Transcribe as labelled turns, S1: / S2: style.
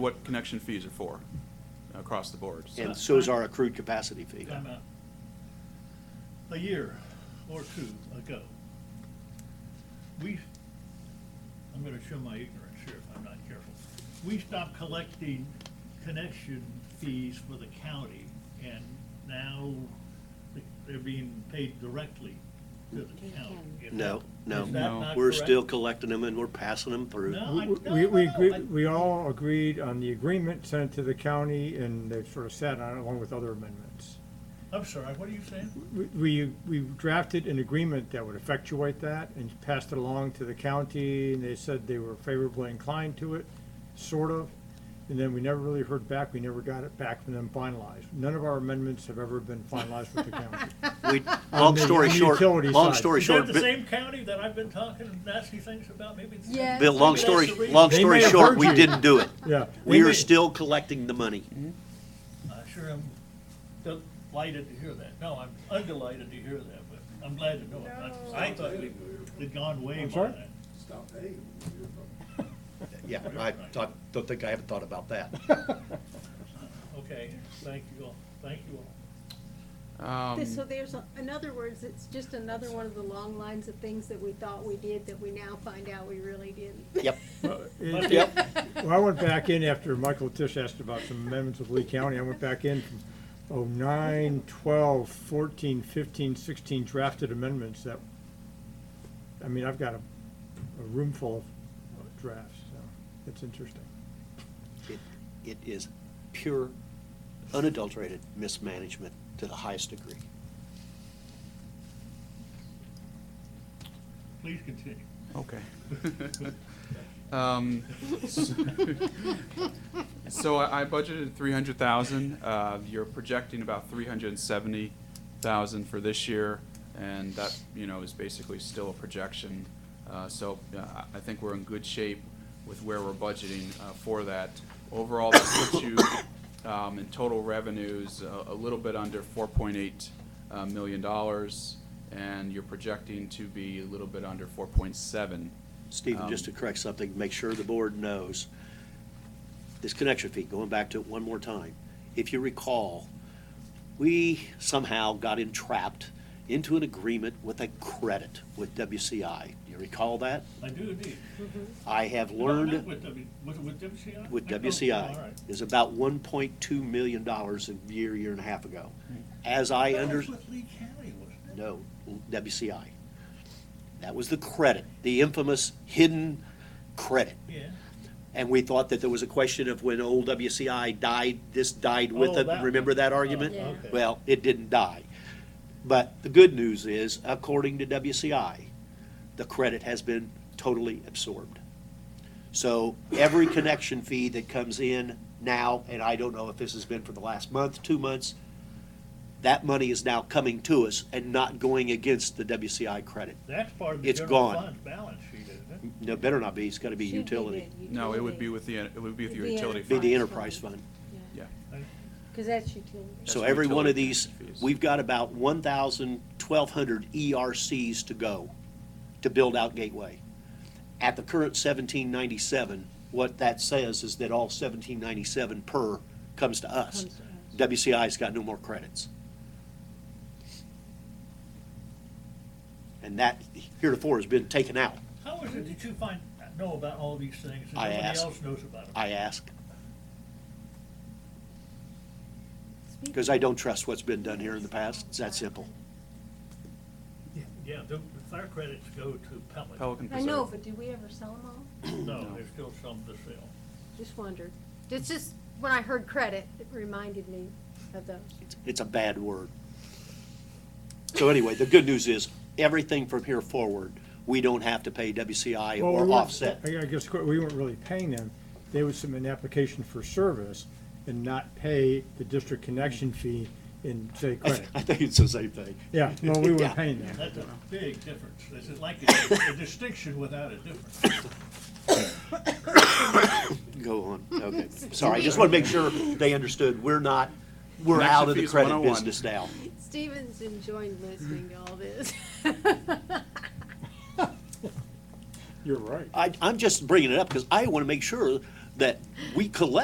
S1: what connection fees are for across the board. So-
S2: And so is our accrued capacity fee.
S3: Time out. A year or two ago, we, I'm gonna show my ignorance here if I'm not careful. We stopped collecting connection fees for the county, and now they're being paid directly to the county. Is
S2: No,
S3: that-
S2: no.
S3: is that not
S2: We're
S3: correct?
S2: still collecting them and we're passing them through.
S3: No, Oh, I-
S4: We-
S3: no,
S4: We,
S3: no,
S4: we,
S3: no,
S4: agree-
S3: I-
S4: we all agreed on the agreement sent to the county, and they've sort of sat on it along with other amendments.
S3: I'm sorry, what are you saying?
S4: We- We, we drafted an agreement that would effectuate that and passed it along to the county, and they said they were favorably inclined to it, sort of. And then we never really heard back, we never got it back from them finalized. None of our amendments have ever been finalized with the county.
S2: We, long
S4: the-
S2: story
S4: on the
S2: short,
S4: utility
S2: long
S4: side.
S2: story
S3: Is that
S2: short,
S3: the
S2: Bi-
S3: same county that I've been talking nasty things about? Maybe it's-
S5: Yeah.
S2: Bill, long
S3: Maybe that's
S2: story,
S3: the reason.
S2: long
S4: They
S2: story
S4: may have
S2: short,
S4: heard
S2: we
S4: you.
S2: didn't do it.
S4: Yeah.
S2: We
S4: They
S2: are
S4: may-
S2: still collecting the money.
S3: I sure am delighted to hear that. No, I'm undelighted to hear that, but I'm glad to know it. I- I thought they'd gone way by
S4: sorry?
S3: that.
S6: Stop paying them when you're from
S2: Yeah, I thought, don't think I haven't thought about that.
S3: Okay, thank you all, thank you all.
S1: Um,
S5: So there's, a- in other words, it's just another one of the long lines of things that we thought we did that we now find out we really didn't.
S2: Yep,
S4: It-
S2: yep.
S4: Well, I went back in after Michael Tisch asked about some amendments of Lee County. I went back in from oh nine, twelve, fourteen, fifteen, sixteen drafted amendments that, I mean, I've got a, a room full of drafts, so it's interesting.
S2: It it is pure, unadulterated mismanagement to the highest degree.
S3: Please continue.
S1: Okay. Um, s- So I I budgeted three hundred thousand, uh, you're projecting about three hundred and seventy thousand for this year, and that, you know, is basically still a projection. Uh, so, uh, I, I think we're in good shape with where we're budgeting, uh, for that. Overall, that puts you, um, in total revenues, uh, a, a little bit under four point eight, uh, million dollars, and you're projecting to be a little bit under four point seven.
S3: Um,
S2: Stephen, just to correct something, make sure the board knows, this connection fee, going back to it one more time, if you recall, we somehow got entrapped into an agreement with a credit with WCI. Do you recall that?
S3: I do indeed.
S2: I have
S3: No, not
S2: learned
S3: With W, with, with WCI?
S2: with
S3: No, no, all
S2: WCI
S3: right.
S2: is about one point two million dollars a year, year and a half ago. As I
S3: Hmm. That
S2: under,
S3: was with Lee County, wasn't it?
S2: no, WCI. That was the credit, the infamous hidden credit.
S3: Yeah.
S2: And we thought that there was a question of when old WCI died, this died with
S3: Oh,
S2: it.
S3: that-
S2: Remember that argument?
S5: Yeah.
S3: okay.
S2: Well, it didn't die. But the good news is, according to WCI, the credit has been totally absorbed. So every connection fee that comes in now, and I don't know if this has been for the last month, two months, that money is now coming to us and not going against the WCI credit.
S3: That's part of the
S2: It's
S3: general
S2: gone.
S3: fund's balance sheet, isn't it?
S2: No, better not be, it's gotta be
S5: Should be
S2: utility.
S5: the
S1: No, it would be with the, it would be with your
S5: It'd be
S1: utility.
S5: a-
S2: Be
S1: fund.
S2: the enterprise
S5: Enterprise
S2: fund.
S5: fund.
S1: Yeah.
S5: Because that's utility.
S2: So
S1: That's
S2: every one of
S1: utility
S2: these,
S1: fees.
S2: we've got about 1,000, 1,200 ERCs E to go to build out Gateway. At the current 1797, what that says is that all 1797 per comes to us.
S5: Comes to us.
S2: WCI's got no more credits. And that heretofore has been taken out,
S3: How is it that you find, know about all these things and
S2: I
S3: nobody
S2: asked.
S3: else knows about them?
S2: I ask, because I don't trust what's been done here in the past. It's that simple.
S3: Yeah, the the fire credits go to Pelican.
S1: Pelican
S5: I
S1: Preserve.
S5: know, but did we ever sell them all?
S3: No, there's still some to sell.
S5: Just wondered. It's just, when I heard credit, it reminded me of those.
S2: It's a bad word. So anyway, the good news is, everything from here forward, we don't have to pay WCI
S4: Well, we
S2: or
S4: weren't-
S2: offset.
S4: I I guess we weren't really paying them. They would submit an application for service and not pay the district connection fee in, say,
S2: I
S4: credit.
S2: th- I think it's the same thing.
S4: Yeah, no, we
S2: Yeah.
S4: weren't paying them.
S3: That's a big difference. This is like a a distinction without a difference.
S2: Go on, okay. Sorry, I just want to make sure they understood, we're not, we're
S1: Connection
S2: out of the
S1: fees
S2: credit
S1: 101.
S2: business now.
S5: Steven's enjoying listening to all this.
S4: You're right.
S2: I, I'm just bringing it up because I want to make sure that we collect